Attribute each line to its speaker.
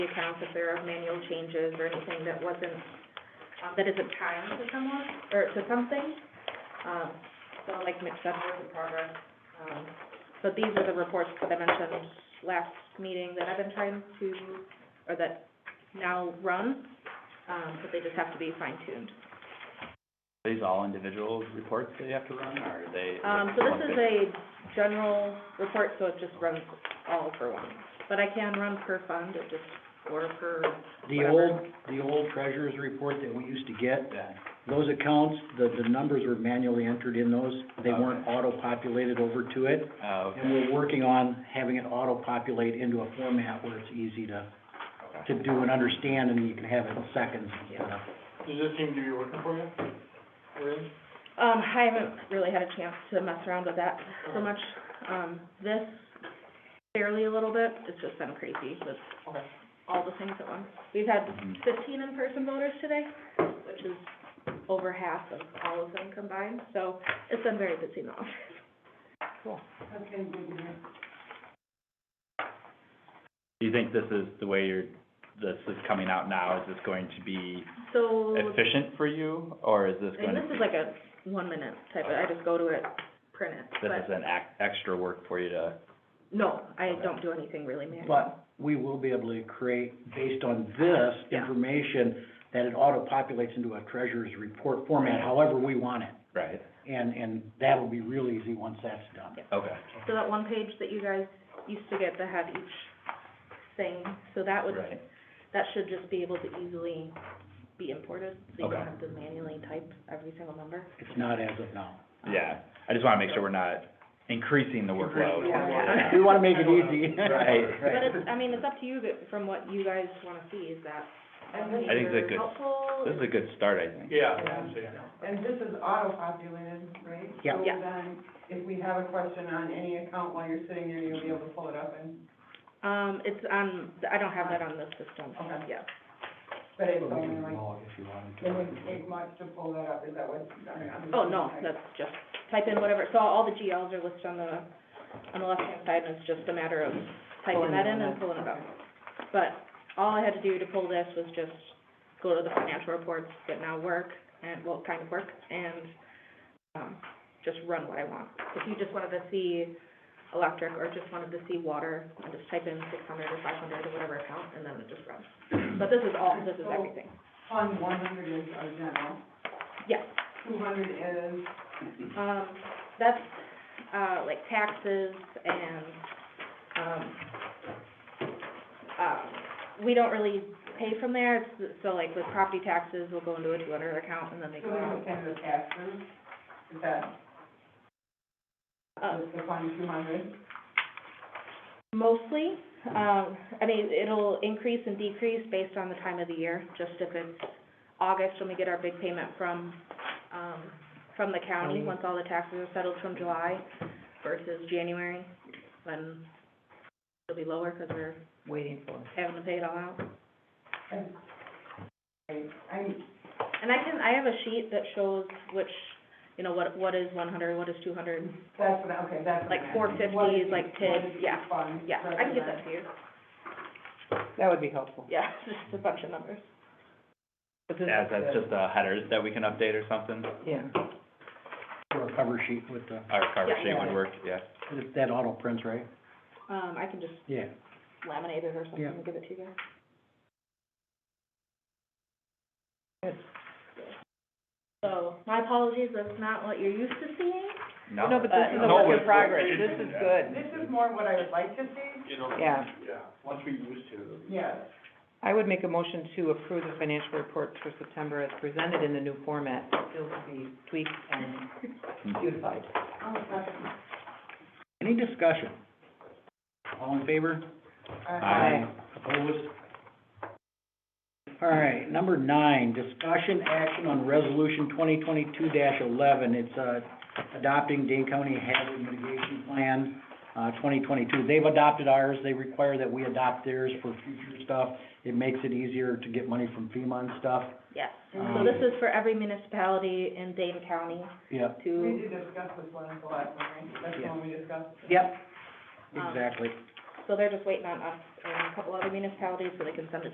Speaker 1: the accounts if there are manual changes or anything that wasn't, um, that isn't timed to someone, or to something. Um, so like mixed up work in progress. Um, but these are the reports that I mentioned last meeting that I've been trying to, or that now run, um, but they just have to be fine tuned.
Speaker 2: Are these all individual reports that you have to run, or are they?
Speaker 1: Um, so this is a general report, so it just runs all for one. But I can run per fund, it just, or per,
Speaker 3: The
Speaker 1: Whatever.
Speaker 3: old, the old treasurer's report that we used to get,
Speaker 2: Yeah,
Speaker 3: those accounts, the, the numbers were manually entered in those. They weren't
Speaker 2: Okay.
Speaker 3: auto-populated over to it.
Speaker 2: oh, okay,
Speaker 3: And we're working on having it auto-populate into a format where it's easy to,
Speaker 2: okay.
Speaker 3: to do and understand and you can have it in seconds instead of.
Speaker 4: Does this seem to be working for you? Really?
Speaker 1: um, I haven't really had a chance to mess around with that so much. Um, this barely a little bit, it's just been crazy with
Speaker 4: Okay.
Speaker 1: all the things at once. We've had
Speaker 2: Mhm.
Speaker 1: fifteen in-person voters today, which is over half of all of them combined, so it's been very busy in the office.
Speaker 2: Do you think this is the way you're, this is coming out now, is this going to be
Speaker 1: So,
Speaker 2: efficient for you, or is this going
Speaker 1: and
Speaker 2: to?
Speaker 1: this is like a one-minute type, of- I just go to it, print it, but.
Speaker 2: This is an ac- extra work for you to,
Speaker 1: No, I
Speaker 2: Okay.
Speaker 1: don't do anything really manual.
Speaker 3: But we will be able to create, based on this
Speaker 1: Yeah.
Speaker 3: information, that it auto-populates into a treasurer's report format, however we want it.
Speaker 2: right,
Speaker 3: And, and that'll be real easy once that's done.
Speaker 2: okay,
Speaker 1: So that one page that you guys used to get that had each thing, so that would,
Speaker 2: right,
Speaker 1: that should just be able to easily be imported, so you don't
Speaker 2: Okay.
Speaker 1: have to manually type every single number.
Speaker 3: It's not as of now.
Speaker 2: yeah. I just wanna make sure we're not increasing the workload.
Speaker 1: Yeah.
Speaker 2: Yeah.
Speaker 3: We wanna make it easy.
Speaker 2: Right.
Speaker 1: But it's, I mean, it's up to you, but from what you guys wanna see, is that, um,
Speaker 2: I think it's a
Speaker 1: either
Speaker 2: good-
Speaker 1: helpful?
Speaker 2: This is a good start, I think.
Speaker 4: Yeah, I'm saying.
Speaker 5: And this is auto-populated, right?
Speaker 3: Yeah.
Speaker 1: Yeah.
Speaker 5: So then, if we have a question on any account while you're sitting there, you'll be able to pull it up and,
Speaker 1: Um, it's on, I don't have that on the system,
Speaker 5: Okay.
Speaker 1: yeah.
Speaker 5: but it's
Speaker 3: Well, we
Speaker 5: only
Speaker 3: can
Speaker 5: like,
Speaker 3: call if you wanted to.
Speaker 5: it wouldn't take much to pull that up, is that what?
Speaker 1: Oh, no, that's just, type in whatever, so all the GLs are listed on the, on the left-hand side, and it's just a matter of typing that in and pulling it up. But all I had to do to pull this was just go to the financial reports that now work, and, well, kind of work, and, um, just run what I want. If you just wanted to see electric, or just wanted to see water, and just type in six hundred or five hundred or whatever account, and then it just runs. But this is all, this is everything.
Speaker 5: Fund one hundred is our general,
Speaker 1: Yes.
Speaker 5: two hundred is,
Speaker 1: Um, that's, uh, like taxes and, um, um, we don't really pay from there, It's- so like with property taxes, we'll go into a two hundred account and then they
Speaker 5: so
Speaker 1: go
Speaker 5: then we
Speaker 1: out.
Speaker 5: can do taxes, is that,
Speaker 1: Uh,
Speaker 5: is the fund two hundred?
Speaker 1: mostly, um, I mean, it'll increase and decrease based on the time of the year, just if it's August when we get our big payment from, um, from the county, once all the taxes are settled from July versus January, when it'll be lower because we're
Speaker 5: Waiting for.
Speaker 1: having to pay it all out.
Speaker 5: I'm,
Speaker 1: And I can, I have a sheet that shows which, you know, what, what is one hundred, what is two hundred,
Speaker 5: that's what, I- okay, that's what
Speaker 1: like
Speaker 5: I'm asking.
Speaker 1: four fifty
Speaker 5: What
Speaker 1: is
Speaker 5: is
Speaker 1: like
Speaker 5: each- what
Speaker 1: TID,
Speaker 5: is each
Speaker 1: yeah,
Speaker 5: fund
Speaker 1: yeah, I can get that
Speaker 5: represent?
Speaker 1: to you.
Speaker 5: That would be helpful.
Speaker 1: Yeah, just a bunch of numbers.
Speaker 2: As, that's just the headers that we can update or something,
Speaker 5: Yeah.
Speaker 3: Or a cover sheet with the,
Speaker 2: our cover
Speaker 1: Yeah.
Speaker 2: sheet would work, yeah.
Speaker 3: that auto prints, right?
Speaker 1: Um, I can just
Speaker 3: Yeah.
Speaker 1: laminate it or something
Speaker 3: Yeah.
Speaker 1: and give it to you guys.
Speaker 3: Good.
Speaker 1: So, my apologies, that's not what you're used to seeing.
Speaker 2: No,
Speaker 1: this is a
Speaker 2: work in
Speaker 4: progress. This is
Speaker 6: good.
Speaker 5: This is more what I would like to see,
Speaker 4: You know,
Speaker 6: Yeah,
Speaker 4: yeah, once we used to.
Speaker 5: yes.
Speaker 6: I would make a motion to approve the financial reports for September as presented in the new format, still to be tweaked and beautified.
Speaker 3: Any discussion? All in favor?
Speaker 2: Aye.
Speaker 3: Opposed? All right, number nine, discussion action on resolution twenty twenty-two eleven. It's, uh, adopting Dane County Hazard Mitigation Plan, uh, twenty twenty-two. They've adopted ours. They require that we adopt theirs for future stuff. It makes it easier to get money from FEMA and stuff.
Speaker 1: Yes, so
Speaker 3: Um,
Speaker 1: this is for every municipality in Dane County
Speaker 3: Yep,
Speaker 5: We
Speaker 1: to,
Speaker 5: did discuss this one at the last one, right? That's the one we discussed.
Speaker 3: yep, exactly.
Speaker 1: so so they're just waiting on us and a couple other municipalities so they can send it